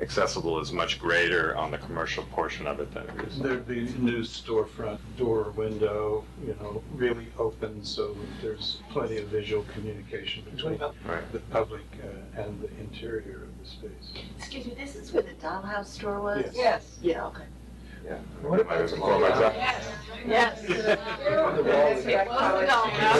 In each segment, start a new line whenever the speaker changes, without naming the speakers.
accessible is much greater on the commercial portion of it than it is.
There'd be new storefront door, window, you know, really open, so there's plenty of visual communication between
Right.
the public uh, and the interior of the space.
Excuse me, this is where the dollhouse store was?
Yes.
Yes.
Yeah, okay.
What about the-
Might as well go back.
Yes.
The uh,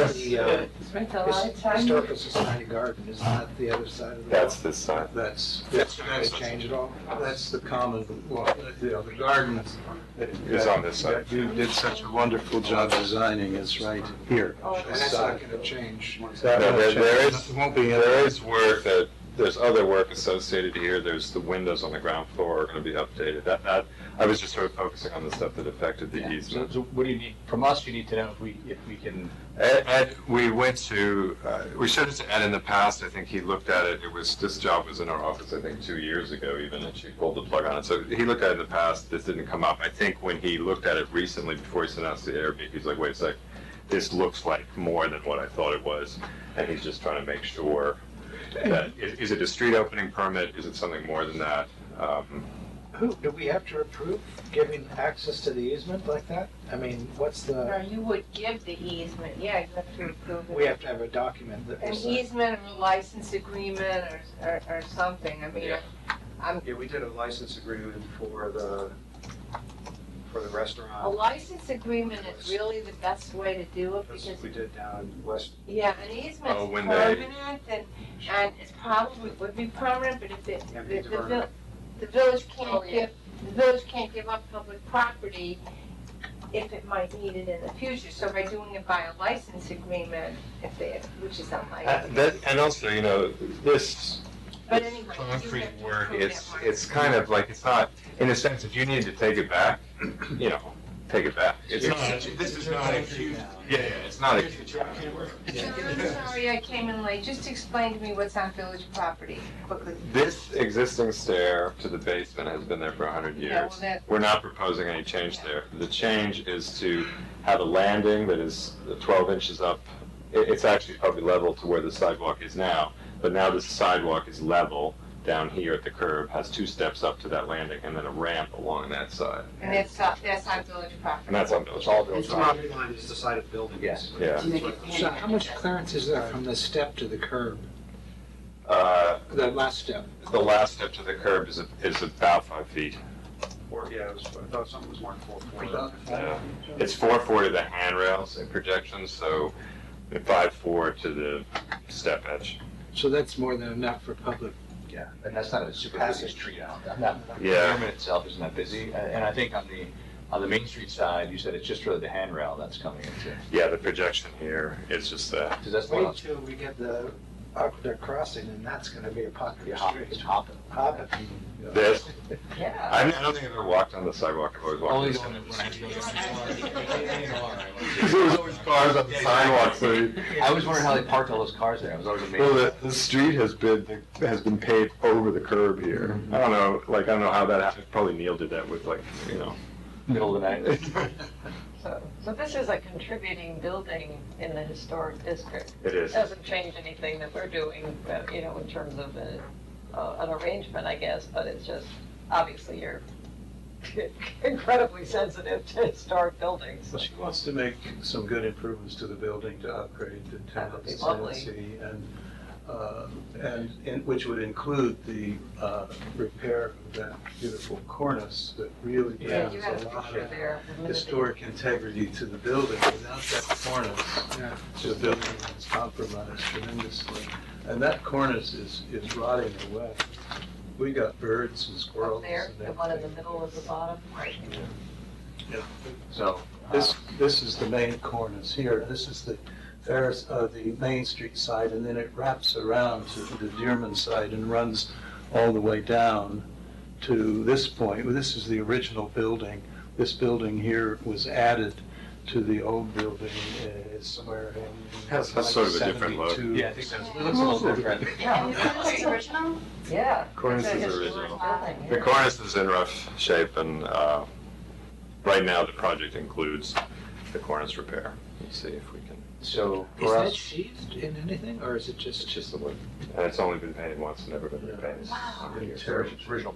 his-
Yes.
Historical Society garden is not the other side of the wall.
That's this side.
That's,
That's
that's,
not going to change at all.
that's the common, well, you know, the gardens. that-
It's on this side.
that You did such a wonderful job designing is right here.
Oh, And that's not going to change.
That
No,
won't
there- there
change.
is-
Won't be,
There is work that, there's other work associated here, there's the windows on the ground floor are gonna be updated, that, that, I was just sort of focusing on the stuff that affected the
Yeah, So,
easement.
so what do you need, from us, you need to know if we, if we can,
Ed, Ed, we went to, uh, we showed it to Ed in the past, I think he looked at it, it was, this job was in our office, I think, two years ago even, and she pulled the plug on it, so he looked at it in the past, this didn't come up, I think when he looked at it recently before he sent us the Airbnb, he's like, wait a sec, this looks like more than what I thought it was, and he's just trying to make sure that, i- is it a street opening permit, is it something more than that? Um,
Who, do we have to approve giving access to the easement like that? I mean, what's
No,
the,
you would give the easement, yeah, you have to approve it.
we have to have a document that.
An
is, uh,
easement or license agreement or, or, or something, I mean,
Yeah.
I'm,
Yeah, we did a license agreement for the, for the
a
restaurant.
license agreement is really the best way to do it
That's what
because,
we did down in West,
yeah, an easement's
Oh, when they-
permanent and, and it's probably, would be permanent, but if it,
Yeah,
the, the,
deferred.
vil- the village
Oh,
can't
yeah.
give, the village can't give up public property if it might need it in the future, so by doing it by a license agreement, if they, which is unlikely.
uh, that- and also, you know, this
But anyway. you
concrete
have to
work,
approve
it's,
that part.
it's kind of like, it's not, in a sense, if you need to take it back, you know, take it back. It's not, this is not a huge, yeah, yeah, it's not a huge.
John, I'm sorry I came in late. Just explain to me what's on village property quickly.
This existing stair to the basement has been there for hundred
Yeah, well,
years.
that-
We're not proposing any change there. The change is to have a landing that is twelve inches up. It, it's actually probably level to where the sidewalk is now, but now the sidewalk is level down here at the curb, has two steps up to that landing, and then a ramp along that side.
And that's, uh, that's on village property.
And that's on Village
all
Hall.
those.
the property line is the side of buildings.
Yes.
Yeah.
So how much clearance is there from the step to the curb,
Uh,
the last step?
The last step to the curb is, is about five feet.
Or, yeah, it was, I thought something was marked four forty.
Yeah. It's four four to the handrails and projections, so five four to the step edge.
So that's more than enough for public
Yeah, and that's not a super busy street out. That- that-
Yeah.
The pyramid itself isn't that busy, Uh, and I think on the, on the Main Street side, you said it's just really the handrail that's coming into,
Yeah, the projection here is just that.
because that's the one
Wait
that's
till we get the aqueduct crossing, and that's gonna be a popular
hopping, it's
street.
hopping.
Hobbit.
This,
Yeah.
I don't think I've ever walked on the sidewalk, I've always walked on
Only
the
the one
sidewalk.
that- when I was going to-
Because there was always cars on the sidewalk, so,
I was wondering how they parked all those cars there, I was always
well,
amazed.
the, the street has been, has been paved over the curb here. I don't know, like, I don't know how that happened, probably Neil did that with like, you know.
Middle of the night.
So, so this is a contributing building in the historic district.
It
It
is.
doesn't change anything that we're doing, uh, you know, in terms of uh, uh, an arrangement, I guess, but it's just, obviously, you're incredibly sensitive to historic buildings.
Well, She wants to make some good improvements to the building to upgrade the
That would be
tenants'
lovely.
tenancy and, uh, and, and which would include the, uh, repair of that beautiful cornice that really
Yeah, you
brings
had
a
a
lot
picture
of
there.
historic integrity to the building. Without that
Yeah.
cornice, the building is compromised tremendously. And that cornice is, is rotting away. We got birds and
Up
squirrels
there,
and
the one in the
everything.
middle of the bottom.
So. uh,
This, this is the main cornice here, this is the Ferris, uh, the Main Street side, and then it wraps around to the Dearman side and runs all the way down to this point. This is the original building. This building here was added to the old building, uh, it's somewhere in.
Has- has sort of a different look.
72.
Yeah, I think that's, it looks a little different.
Yeah.
original?
Yeah.
Cornice
It's a
is
historic
original.
building,
The
yeah.
cornice is in rough shape, and uh, right now, the project includes the cornice repair. Let's see if we can,
So
Is
for
that
us,
sheathed in anything, or is it just?
it's just the wood, and it's only been painted once and never been repainted.
original